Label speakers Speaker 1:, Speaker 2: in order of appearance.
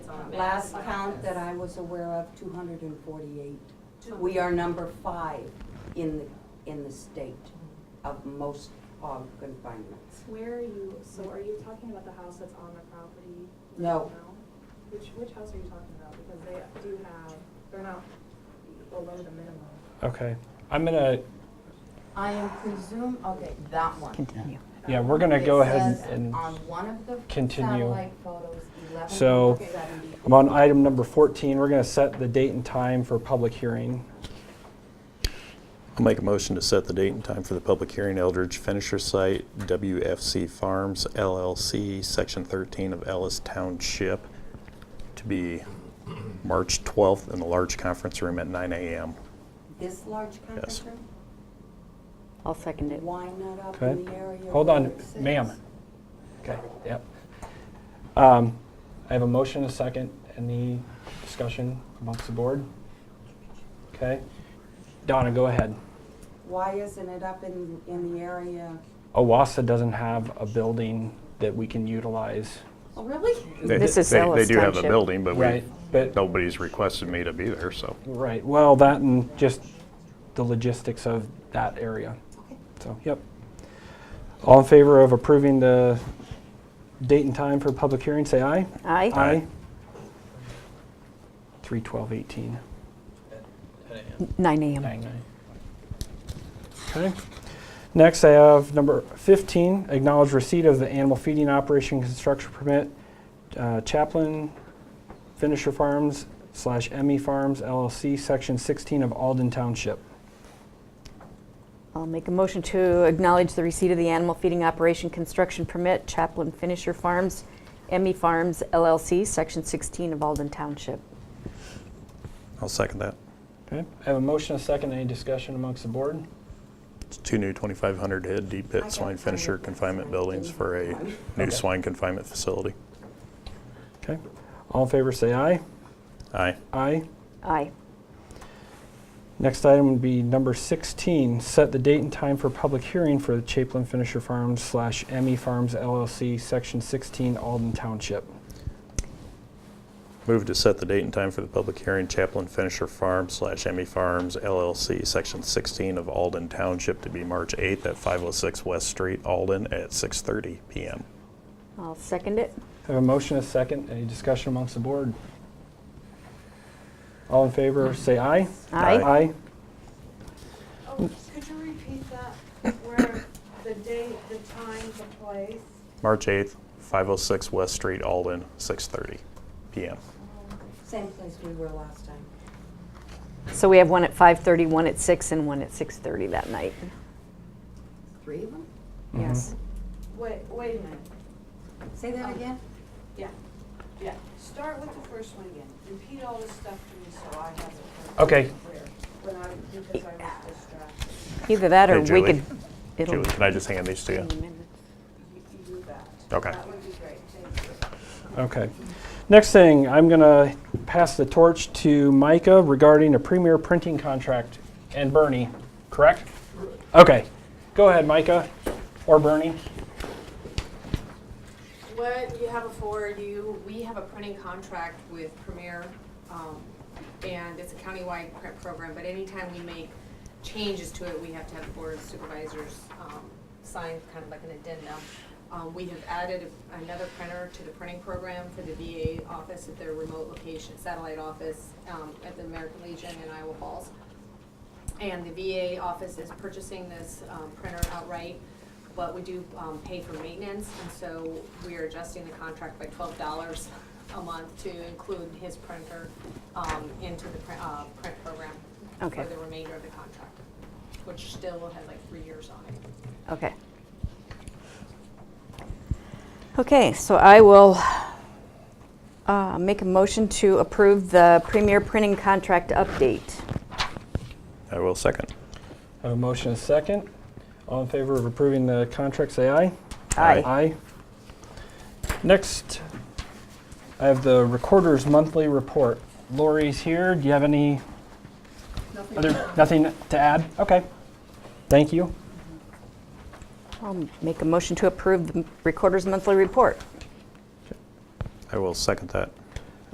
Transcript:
Speaker 1: last count that I was aware of, two hundred and forty-eight. We are number five in the, in the state of most hog confinements.
Speaker 2: Where are you, so are you talking about the house that's on the property? now?
Speaker 1: No.
Speaker 2: Which, which house are you talking about? Because they do have, they're not below the minimum.
Speaker 3: Okay, I'm gonna,
Speaker 4: I am presume, okay, that one.
Speaker 5: Continue.
Speaker 3: yeah, we're gonna
Speaker 4: It
Speaker 3: go ahead
Speaker 4: says
Speaker 3: and,
Speaker 4: On one of the
Speaker 3: continue.
Speaker 4: satellite photos, eleven
Speaker 3: So-
Speaker 4: seventy.
Speaker 3: I'm on item number 14, we're gonna set the date and time for public hearing.
Speaker 5: I'll make a motion to set the date and time for the public hearing, Eldridge Finisher Site, WFC Farms LLC, Section 13 of Ellis Township, to be March 12th in the large conference room at 9 a.m.
Speaker 1: This large conference room?
Speaker 6: I'll second it.
Speaker 1: Why not up
Speaker 3: Okay.
Speaker 1: in the area?
Speaker 3: Hold
Speaker 1: where
Speaker 3: on,
Speaker 1: it sits?
Speaker 3: ma'am. Okay, yep. Um, I have a motion, a second, any discussion amongst the board? Okay, Donna, go ahead.
Speaker 1: Why isn't it up in, in the area?
Speaker 3: Owassa doesn't have a building that we can utilize.
Speaker 1: Oh, really?
Speaker 5: They-
Speaker 6: This is
Speaker 5: they-
Speaker 6: Ellis
Speaker 5: They do have a
Speaker 6: Township.
Speaker 5: building, but we,
Speaker 3: Right, but,
Speaker 5: nobody's requested me to be there, so.
Speaker 3: right, well, that and just the logistics of that area. So, yep. All in favor of approving the date and time for public hearing, say aye.
Speaker 6: Aye.
Speaker 3: Aye. Three twelve eighteen.
Speaker 6: 9 AM.
Speaker 3: Okay. Next, I have number 15, acknowledge receipt of the animal feeding operation construction permit, uh, Chaplin Finisher Farms slash Emmy Farms LLC, Section 16 of Alden Township.
Speaker 6: I'll make a motion to acknowledge the receipt of the animal feeding operation construction permit, Chaplin Finisher Farms, Emmy Farms LLC, Section 16 of Alden Township.
Speaker 5: I'll second that.
Speaker 3: Okay, I have a motion, a second, any discussion amongst the board?
Speaker 5: It's two new 2,500 head deep
Speaker 1: I
Speaker 5: pit swine
Speaker 1: got tired
Speaker 5: finisher
Speaker 1: last
Speaker 5: confinement
Speaker 1: night,
Speaker 5: buildings
Speaker 1: didn't
Speaker 5: for
Speaker 1: have
Speaker 5: a
Speaker 1: time.
Speaker 5: new
Speaker 3: Okay.
Speaker 5: swine confinement facility.
Speaker 3: Okay, all in favor, say aye.
Speaker 5: Aye.
Speaker 3: Aye.
Speaker 6: Aye.
Speaker 3: Next item would be number 16, set the date and time for public hearing for the Chaplin Finisher Farms slash Emmy Farms LLC, Section 16, Alden Township.
Speaker 5: Move to set the date and time for the public hearing, Chaplain Finisher Farm slash Emmy Farms LLC, Section 16 of Alden Township to be March 8th at 506 West Street, Alden, at 6:30 PM.
Speaker 6: I'll second it.
Speaker 3: I Have a motion, a second, any discussion amongst the board? All in favor, say aye.
Speaker 5: Aye.
Speaker 3: Aye.
Speaker 7: Oh, could you repeat that, where the date, the time, the place?
Speaker 5: March 8th, 506 West Street, Alden, 6:30 PM.
Speaker 1: Same place we were last time.
Speaker 6: So we have one at 5:30, one at 6, and one at 6:30 that night.
Speaker 4: Three of them?
Speaker 3: Mm-hmm.
Speaker 6: Yes.
Speaker 7: Wait, wait a minute,
Speaker 1: Say that again?
Speaker 7: yeah, yeah. Start with the first one again, repeat all this stuff to me so I have it.
Speaker 3: Okay.
Speaker 7: clear When I, because I was distracted,
Speaker 6: Either that or
Speaker 5: Hey,
Speaker 6: we
Speaker 5: Julie.
Speaker 6: could. it'll
Speaker 5: Julie, can I just hand these to
Speaker 6: be
Speaker 5: you?
Speaker 6: in the minutes.
Speaker 7: you, you do that.
Speaker 5: Okay.
Speaker 7: That would be great, thank you.
Speaker 3: Mm-hmm. Okay. Next thing, I'm going to pass the torch to Micah regarding a premier printing contract and Bernie, correct? Okay. Go ahead, Micah, or Bernie.
Speaker 8: What you have before you, we have a printing contract with Premier, um, and it's a countywide print program, but anytime we make changes to it, we have to have the board of supervisors, um, sign kind of like an addendum. Um, we have added another printer to the printing program for the VA office at their remote location, satellite office, um, at the American Legion in Iowa Falls. And the VA office is purchasing this um, printer outright, but we do um, pay for maintenance, and so we are adjusting the contract by twelve dollars a month to include his printer um, into the print, uh, print program
Speaker 6: Okay.
Speaker 8: for the remainder of the contract, which still has like three years on it.
Speaker 6: Okay. Okay, so I will uh, make a motion to approve the Premier Printing Contract update.
Speaker 5: I will second.
Speaker 3: I have a motion, and a second. All in favor of approving the contract, say aye.
Speaker 6: Aye.
Speaker 3: Aye. Next, I have the Recorder's Monthly Report. Lori's here. Do you have any? Nothing. Nothing to add? Okay. Thank you.
Speaker 6: I'll make a motion to approve the Recorder's Monthly Report.
Speaker 5: I will second that.